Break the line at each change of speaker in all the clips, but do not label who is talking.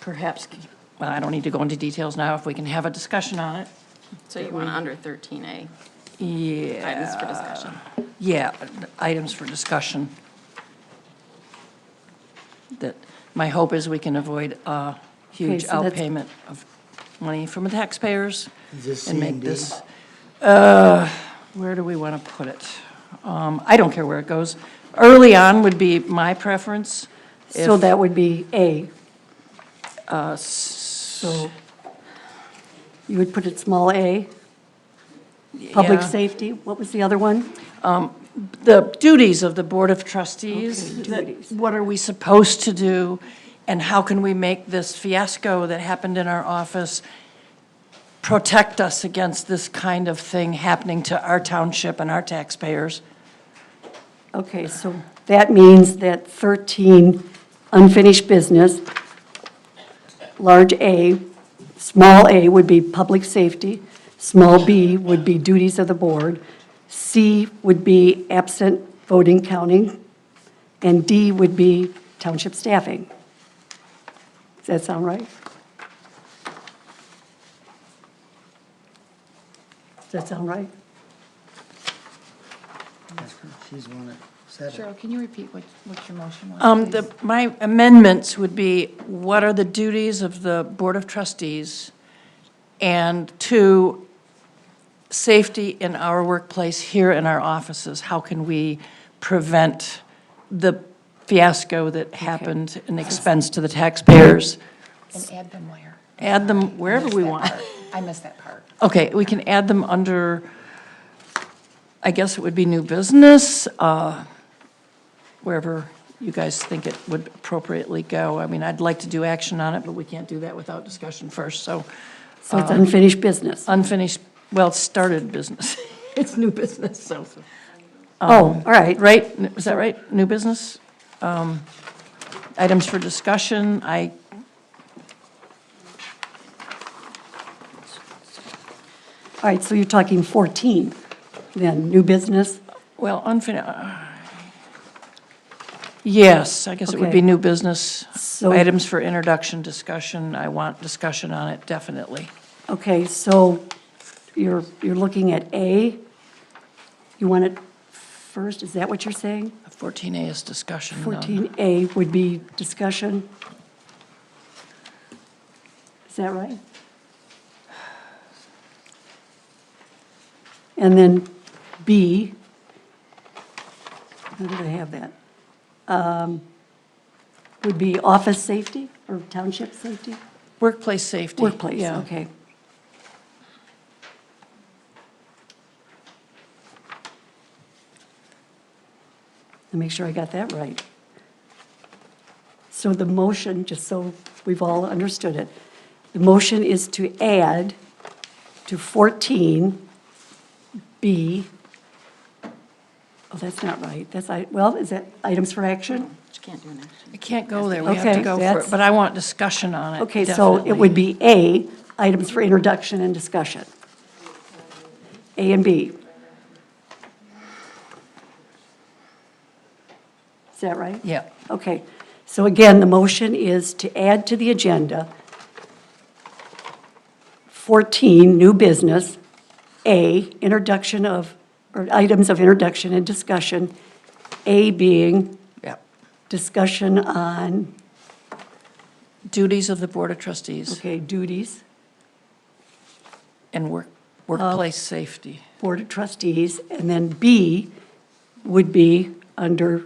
perhaps, well, I don't need to go into details now, if we can have a discussion on it.
So you want under 13A,
Yeah,
items for discussion.
yeah, items for discussion. That, my hope is we can avoid a huge
Okay, so that's-
outpayment of money from the taxpayers
this
and
C
make
and D?
this, uh, where do we want to put it? Um, I don't care where it goes. Early on would be my preference.
So
If-
that would be A. So you would put it small a, public
Yeah.
safety. What was the other one?
the duties of the Board of Trustees.
Okay,
that-
duties.
What are we supposed to do, and how can we make this fiasco that happened in our office protect us against this kind of thing happening to our township and our taxpayers?
Okay, so that means that 13, unfinished business, large A, small a would be public safety, small b would be duties of the board, c would be absent voting counting, and d would be township staffing. Does that sound right? Does that sound right?
That's her. She's the one that said it.
Cheryl, can you repeat what, what your motion was?
Um, the, my amendments would be, what are the duties of the Board of Trustees? And two, safety in our workplace here in our offices. How can we prevent the fiasco that happened and expense to the taxpayers?
And add them where?
Add them wherever we
That
want.
part. I missed that part.
Okay, we can add them under, I guess it would be new business, uh, wherever you guys think it would appropriately go. I mean, I'd like to do action on it, but we can't do that without discussion first, so
So it's unfinished
uh,
business.
unfinished, well, started business. It's new business, so,
Oh, all right.
right? Is that right? New business? Um, Items for discussion, I,
All right, so you're talking 14, then, new business?
well, unfinished, yes, I guess it would be
Okay.
new business.
So-
Items for introduction, discussion, I want discussion on it, definitely.
Okay, so you're, you're looking at A? You want it first, is that what you're saying?
14A is discussion. though.
14A would be discussion? Is that right? And then B, how did I have that? Um, Would be office safety or township safety?
Workplace safety.
Workplace,
yeah.
okay. Let me make sure I got that right. So the motion, just so we've all understood it, the motion is to add to 14B, oh, that's not right, that's, I well, is that items for action?
Which can't do an action.
I can't go there, we have to
Okay,
go for it,
that's-
but I want discussion on it.
Okay, so it would be A, items for introduction and discussion. A and B. Is that right?
definitely. Yeah.
Okay, so again, the motion is to add to the agenda 14, new business, A, introduction of, or items of introduction and discussion, A being
Yeah.
discussion on,
Duties of the Board of Trustees
okay, duties.
and work workplace safety.
Board of Trustees, and then B would be under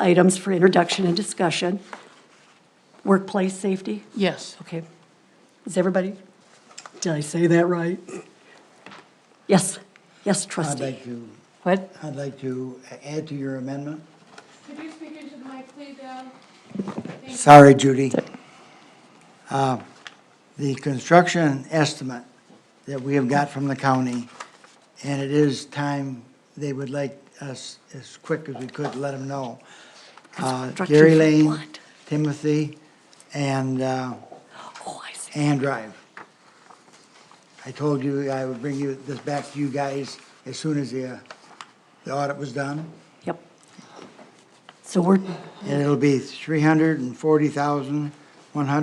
items for introduction and discussion, workplace safety.
Yes.
Okay. Is everybody, did I say that right? Yes, yes,
I'd
trustee.
like to,
What?
I'd like to add to your amendment.
Could you speak into the mic, please, Al?
Sorry, Judy. Uh, The construction estimate that we have got from the county, and it is time, they would like us as quick as we could, let them know. Uh,
Construction
Gary
for
Lane,
what?
Timothy, and, uh,
Oh, I see.
and Drive. I told you I would bring you this back to you guys as soon as the, uh, the audit was done.
Yep. So we're
And it'll be three hundred and forty thousand, one hundred